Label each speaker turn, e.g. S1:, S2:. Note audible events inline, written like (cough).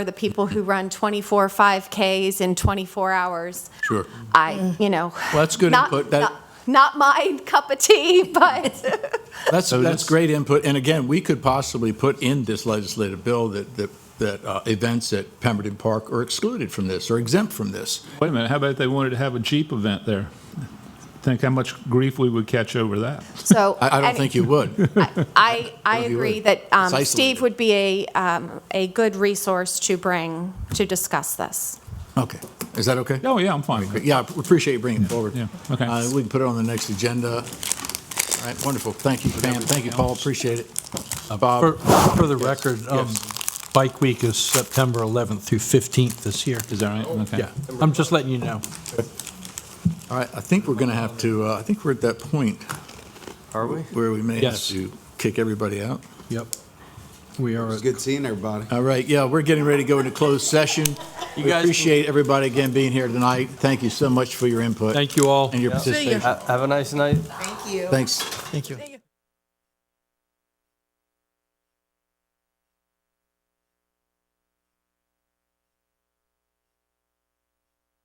S1: for the people who run 24 5Ks in 24 hours.
S2: Sure.
S1: I, you know.
S2: Well, that's good
S1: not-
S2: input. That-
S1: not- Not my cup of tea, (laughs) but
S2: That's,
S3: So
S2: that's
S3: this-
S2: great input. And again, we could possibly put in this legislative bill that, that, that uh, events at Pemberton Park are excluded from this or exempt from this.
S3: Wait a minute, how about if they wanted to have a Jeep event there? Think how much grief we would catch over that.
S1: so.
S2: I, I don't
S1: any-
S2: think you would.
S1: I, I
S2: If you
S1: agree
S2: would.
S1: that um,
S2: It's isolated.
S1: Steve would be a, um, a good resource to bring to discuss this.
S2: Okay. Is that okay?
S3: Oh, yeah, I'm fine with it.
S2: Yeah, I appreciate you bringing it forward.
S3: yeah, okay.
S2: Uh, We can put it on the next agenda. All right, wonderful. Thank you, Pam. Thank you, Paul. Appreciate it.
S4: For,
S2: Bob,
S4: for the record, um, Bike Week is September 11th through 15th this year.
S3: Is that right? Okay.
S4: Yeah, I'm just letting you know.
S2: all right, I think we're going to have to, uh, I think we're at that point
S5: Are we?
S2: where we may have
S4: Yes.
S2: to kick everybody out.
S4: Yep. We are,
S5: It's
S4: at-
S5: good seeing everybody.
S2: All right, yeah, we're getting ready to go into closed session.
S4: You
S2: We
S4: guys-
S2: appreciate everybody again being here tonight. Thank you so much for your input
S4: thank you all.
S2: and your participation.
S5: Ha- Have a nice night.
S6: Thank you.
S2: Thanks.
S4: Thank you.